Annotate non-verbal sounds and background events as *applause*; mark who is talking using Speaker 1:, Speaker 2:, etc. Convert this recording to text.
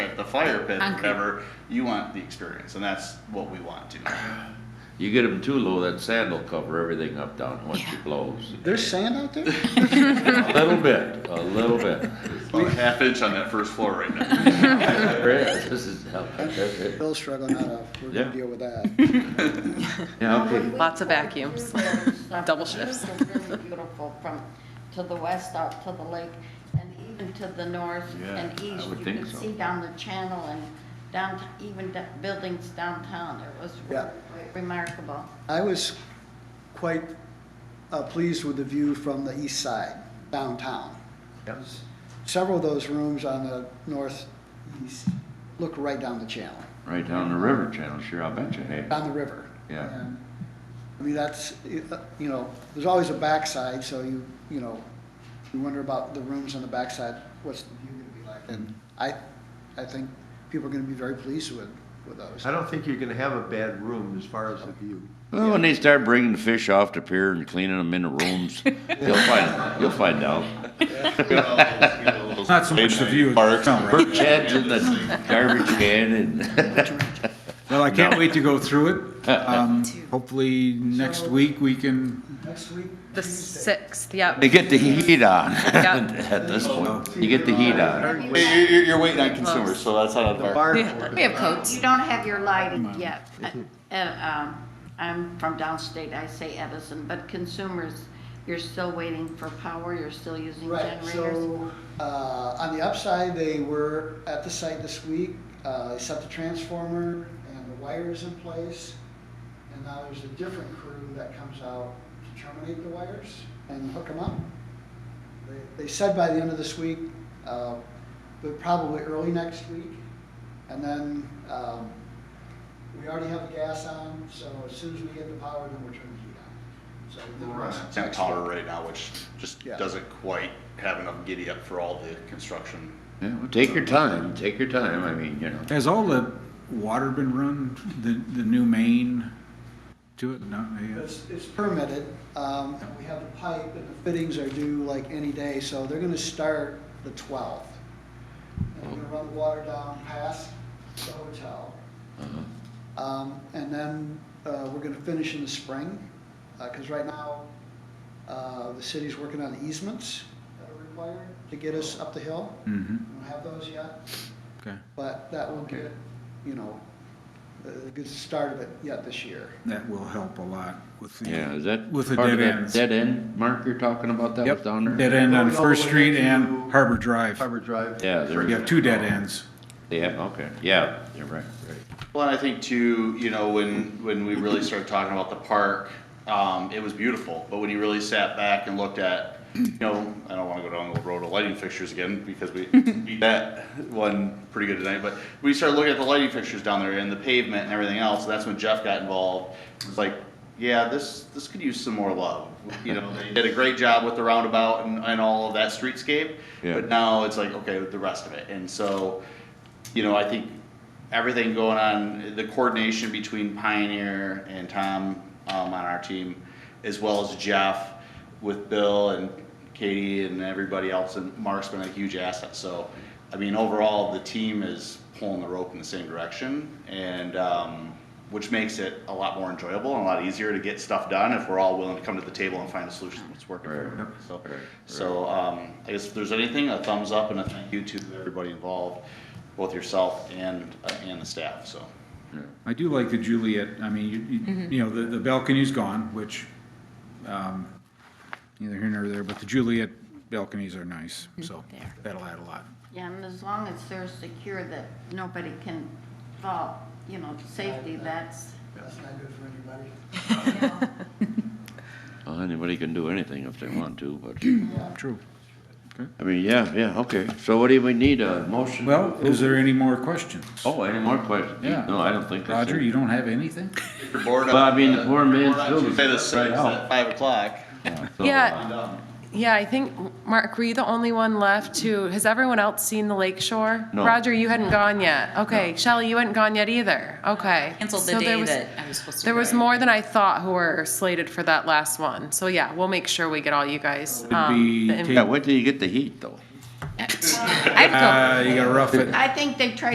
Speaker 1: fire pit or
Speaker 2: Concrete.
Speaker 1: whatever, you want the experience, and that's what we want to.
Speaker 3: You get them too low, that sand will cover everything up down once
Speaker 2: Yeah.
Speaker 3: it blows.
Speaker 4: There's sand
Speaker 3: *laughs*
Speaker 4: out there?
Speaker 3: A little bit, a little bit. *laughs*
Speaker 1: About a half inch on that first floor right now.
Speaker 3: This is, yeah,
Speaker 4: Bill's struggling out of, we're
Speaker 3: Yeah.
Speaker 4: gonna deal
Speaker 3: *laughs*
Speaker 4: with that.
Speaker 3: okay.
Speaker 5: Lots of
Speaker 6: *laughs*
Speaker 5: vacuums. Double shifts.
Speaker 6: It's really beautiful from, to the west out to the lake and even to the north
Speaker 3: Yeah,
Speaker 6: and
Speaker 3: I
Speaker 6: east.
Speaker 3: would
Speaker 6: You
Speaker 3: think
Speaker 6: could
Speaker 3: so.
Speaker 6: see down the channel and down, even da- buildings downtown. It was
Speaker 4: Yeah.
Speaker 6: remarkable.
Speaker 4: I was quite uh, pleased with the view from the east side downtown. Several of those rooms on the northeast look right down the channel,
Speaker 3: Right down the river channel, sure, I'll bet you, hey.
Speaker 4: down the river.
Speaker 3: Yeah.
Speaker 4: And, I mean, that's, uh, you know, there's always a backside, so you, you know, you wonder about the rooms on the backside, what's the view gonna be like? And I, I think people are gonna be very pleased with, with those.
Speaker 7: I don't think you're gonna have a bad room as far as the view.
Speaker 3: Well, when they start bringing fish off the pier and cleaning them in the rooms, you'll find, you'll find out.
Speaker 8: Not so much the view. Parks.
Speaker 3: Bird sheds in the garbage can and, *laughs*
Speaker 8: Well, I can't wait to go through it. Um, Hopefully, next week, we can,
Speaker 4: Next week,
Speaker 5: The sixth, yeah.
Speaker 3: they get the heat on
Speaker 5: Yeah.
Speaker 3: *laughs* at this point. You get the heat on.
Speaker 1: Hey, you're, you're waiting on consumers, so that's not a bar.
Speaker 5: We have- we have coats.
Speaker 6: You don't have your lighting yet. Uh, um, I'm from downstate, I say Edison, but consumers, you're still waiting for power, you're still using
Speaker 4: Right,
Speaker 6: generators.
Speaker 4: so, uh, on the upside, they were at the site this week, uh, they set the transformer and the wires in place. And now there's a different crew that comes out to terminate the wires and hook them up. They- They said by the end of this week, uh, but probably early next week. And then, um, we already have the gas on, so as soon as we get the power, then we're turning the heat on. So uh, the
Speaker 1: We're on
Speaker 4: rest-
Speaker 1: temp power right now, which just
Speaker 4: Yeah.
Speaker 1: doesn't quite have enough giddy up for all the construction.
Speaker 3: Yeah, well, Take your time, take your time, I mean, you know.
Speaker 8: has all the water been run, the, the new main to it? No, yeah.
Speaker 4: It's, it's permitted, um, and we have the pipe and the fittings are due like any day, so they're gonna start the twelfth. And we're gonna run the water down past the hotel. Um, and then, uh, we're gonna finish in the spring, uh 'cause cause right now, uh, the city's working on easements that are required to get us up the hill.
Speaker 8: Mm-hmm,
Speaker 4: We don't have those yet,
Speaker 8: okay.
Speaker 4: but that will get, you know, a a good start of it yet this year.
Speaker 8: That will help a lot with the.
Speaker 3: Yeah, is that
Speaker 8: With the
Speaker 3: part of
Speaker 8: dead
Speaker 3: that
Speaker 8: ends.
Speaker 3: Dead end, Mark, you're talking about that was
Speaker 8: Yep,
Speaker 3: down there?
Speaker 8: dead end on
Speaker 7: Going all
Speaker 8: First
Speaker 7: the way
Speaker 8: Street
Speaker 7: to
Speaker 8: and Harbor Drive.
Speaker 7: Harbor Drive.
Speaker 3: Yeah,
Speaker 8: You
Speaker 3: there,
Speaker 8: have two dead ends.
Speaker 3: yeah, okay, yeah, you're right, right.
Speaker 1: Well, and I think too, you know, when, when we really started talking about the park, um, it was beautiful, but when you really sat back and looked at, you know, I don't wanna go down the road of lighting fixtures again, because we beat that one pretty good tonight, but we started looking at the lighting fixtures down there and the pavement and everything else, that's when Jeff got involved. It's like, yeah, this, this could use some more love, you know, they did a great job with the roundabout and, and all of that streetscape,
Speaker 3: Yeah.
Speaker 1: but now it's like, okay, the rest of it, and so, you know, I think everything going on, the coordination between Pioneer and Tom um, on our team, as well as Jeff with Bill and Katie and everybody else, and Mark's been a huge asset. So, I mean, overall, the team is pulling the rope in the same direction, and um, which makes it a lot more enjoyable and a lot easier to get stuff done if we're all willing to come to the table and find a solution that's working for
Speaker 3: Right.
Speaker 1: everyone. So,
Speaker 3: Right.
Speaker 1: so um, I guess if there's anything, a thumbs up and a thank you to everybody involved, both yourself and, uh, and the staff, so.
Speaker 8: I do like the Juliet, I mean, you- you, you know, the, the balcony's gone, which, um, neither here nor there, but the Juliet balconies Mm-hmm. are nice, so that'll add a lot.
Speaker 6: Yeah, and as long as they're secure that nobody can fall, you know, safety, that's,
Speaker 4: That's not good for anybody.
Speaker 3: Well, anybody can do anything if they want to, but,
Speaker 8: True.
Speaker 3: I mean, yeah, yeah, okay. So what do we need, a motion? to
Speaker 8: Well,
Speaker 3: approve?
Speaker 8: is there any more questions?
Speaker 3: Oh, any more questions?
Speaker 8: Yeah.
Speaker 3: No, I don't think that's
Speaker 8: Roger,
Speaker 3: it.
Speaker 8: you don't have anything?
Speaker 3: Well, I mean, the poor man's still.
Speaker 1: Say uh, the six at five o'clock.
Speaker 3: So,
Speaker 5: Yeah.
Speaker 1: Um,
Speaker 5: Yeah, I think, Mark, were you the only one left to, has everyone else seen the lake shore?
Speaker 3: No.
Speaker 5: Roger, you hadn't gone yet. Okay, Shelley, you hadn't gone yet either. Okay.
Speaker 2: Canceled
Speaker 5: So
Speaker 2: the
Speaker 5: there
Speaker 2: day
Speaker 5: was-
Speaker 2: that I was supposed to.
Speaker 5: There
Speaker 2: go.
Speaker 5: was more than I thought who were slated for that last one. So yeah, we'll make sure we get all you guys.
Speaker 8: Would
Speaker 5: um,
Speaker 8: be
Speaker 5: the inv-
Speaker 3: Yeah, wait till you get the heat, though.
Speaker 2: I'd go.
Speaker 8: Uh, you gotta rough it.
Speaker 6: I think they try